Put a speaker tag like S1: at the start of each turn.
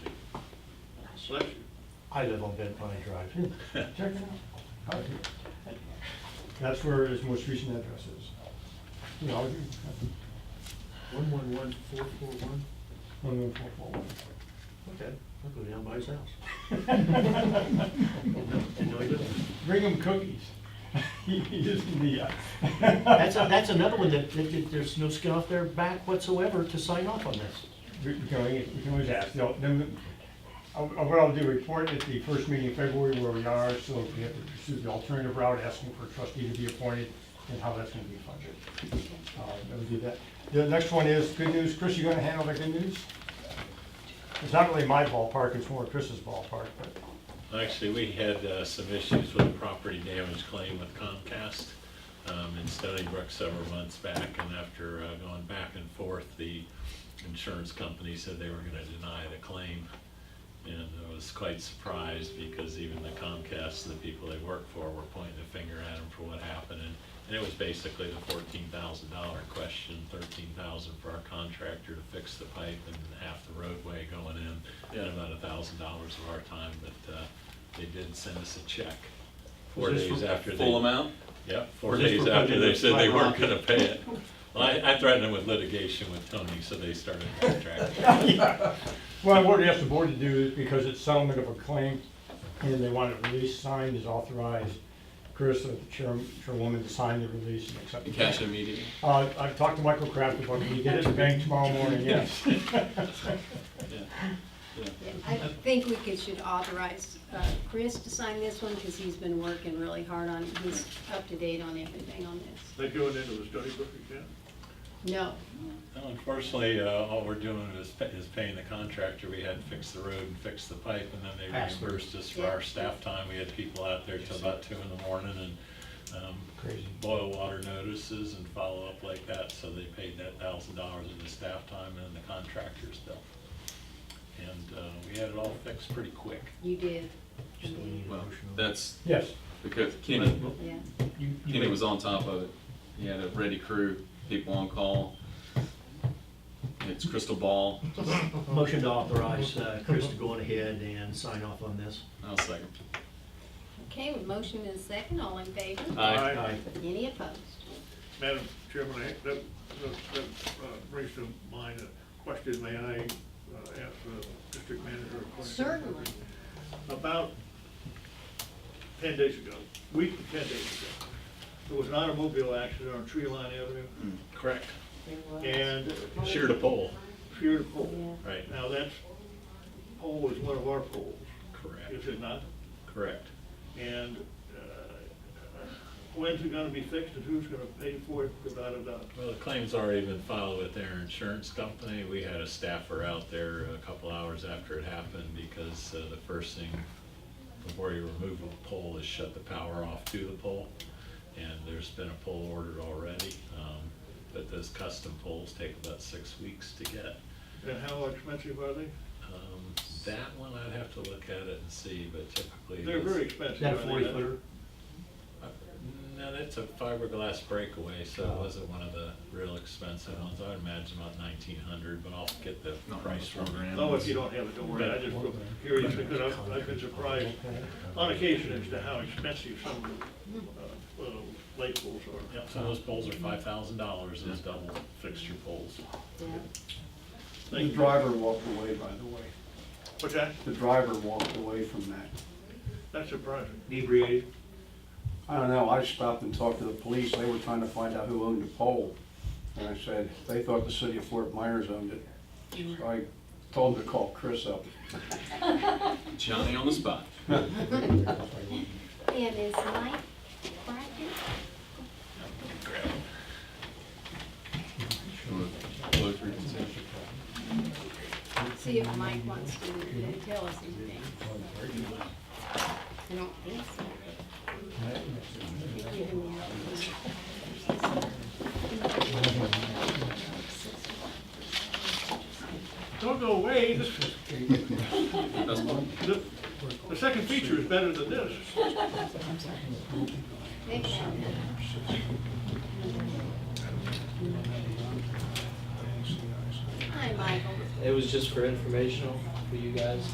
S1: Bless you.
S2: I live on Bent Pine Drive,
S1: Hmm.
S2: too. Check it out. Out here. That's where his most recent address is. You know,
S1: One one one four four one?
S2: one one four four one.
S1: Okay, I'll go down by his house. No, he
S2: Bring
S1: doesn't.
S2: him cookies. He isn't the. uh,
S1: That's, a- that's another one that, that- that there's no skin off their back whatsoever to sign off on this.
S2: We we can always, we can always ask, No, then, uh, what I'll do, report at the first meeting in February where we are, so if we have to pursue the alternative route, asking for a trustee to be appointed, and how that's gonna be funded. Uh, That would do that. The next one is good news, Chris, you gonna handle the good news? It's not really my ballpark, it's more Chris's ballpark, but.
S3: Actually, we had uh, some issues with a property damage claim with Comcast um, in Stony Brook several months back, and after uh, going back and forth, the insurance company said they were gonna deny the claim. And I was quite surprised, because even the Comcast, the people they work for, were pointing the finger at them for what happened. And- And it was basically the fourteen thousand dollar question, thirteen thousand for our contractor to fix the pipe and half the roadway going in, and about a thousand dollars of our time, but uh, they did send us a check four
S1: Was this
S3: days
S1: for
S3: after they.
S4: Full amount?
S3: Yep, four
S1: Was this
S3: days
S1: for
S3: after they
S1: President
S3: said they weren't
S1: Trump?
S3: gonna pay it. Well, I, I threatened them with litigation with Tony, so they started a contract.
S2: Well, what we asked the board to do is, because it's settlement of a claim, and they want a release signed, is authorized Chris, uh, the chair- chairwoman, to sign the release and accept the
S4: Cash immediately?
S2: Uh, I've talked to Michael Kraft about, it. he get it in the bank tomorrow morning, yes.
S4: Yeah. Yeah.
S5: I think we could, should authorize uh, Chris to sign this one, because he's been working really hard on, he's up to date on everything on this.
S1: They going into the Stony Brook account?
S5: No,
S3: Well, Unfortunately, uh, all we're doing is, pa- is paying the contractor, we had to fix the road and fix the pipe, and then they
S1: Absolutely.
S3: reimbursed us for our staff time, we had people out there till about two in the morning, and, um,
S2: Crazy.
S3: boil water notices and follow-up like that, so they paid that thousand dollars of the staff time and the contractor's bill. And, uh, we had it all fixed pretty quick.
S5: you did. You
S1: Just
S5: did,
S4: Well, that's
S2: Yes,
S4: because Kenny,
S5: Yeah.
S1: You, you
S4: Kenny
S1: may-
S4: was on top of it. He had a ready crew, people on call. It's crystal ball.
S1: Motion to authorize uh, Chris to go on ahead and sign off on this.
S4: I'll second.
S5: Okay, motion and second, all in favor?
S4: Aye.
S1: Aye.
S5: Any opposed?
S6: Madam Chairman, I- that, that- that uh, brings to mind a question, may I uh, ask the district manager a question?
S5: Certainly.
S6: About ten days ago, week to ten days ago, there was an automobile accident on Tree Line Avenue
S3: Correct.
S5: There was.
S6: and
S3: Sheared a pole.
S6: sheared a pole.
S5: Yeah.
S3: Right.
S6: Now, that pole is one of our poles,
S3: Correct,
S6: is it not?
S3: correct.
S6: And uh, when's it gonna be fixed and who's gonna pay for it without a doubt?
S3: Well, the claim's already been filed with their insurance company. We had a staffer out there a couple hours after it happened because uh, the first thing before you remove a pole is shut the power off to the pole. And there's been a pole ordered already, um, but those custom poles take about six weeks to get.
S6: And how expensive are they?
S3: Um, That one, I'd have to look at it and see, but typically.
S6: They're
S3: it's-
S6: very
S1: Is
S6: expensive.
S1: that a
S6: aren't they?
S1: forty footer?
S3: No, that's a fiberglass breakaway, so it wasn't one of the real expensive ones. I would imagine about nineteen hundred, but I'll get the
S4: Not
S3: price
S4: four
S3: from her.
S4: grand.
S6: No, if you don't have it, don't worry, I just was curious, because I've, I've been surprised on occasion as to how expensive some of the, uh, little light poles are.
S3: Yep, some of those poles are five thousand dollars, those double fixture poles.
S5: Yeah.
S7: The driver walked away, by the way.
S6: What's that?
S7: The driver walked away from that.
S6: That's surprising.
S1: Inebriated?
S7: I don't know, I stopped and talked to the police, they were trying to find out who owned the pole. And I said, they thought the city of Fort Myers owned it. So I told them to call Chris up.
S4: Johnny on the spot.
S5: And is Mike Bracken?
S4: Vote for consent.
S5: See if Mike wants to uh, tell us anything. I don't think so. Give him the opportunity.
S6: Don't go away, this is,
S4: That's fine.
S6: the, the second feature is better than this.
S5: Thank you. Hi, Michael.
S8: It was just for informational for you guys.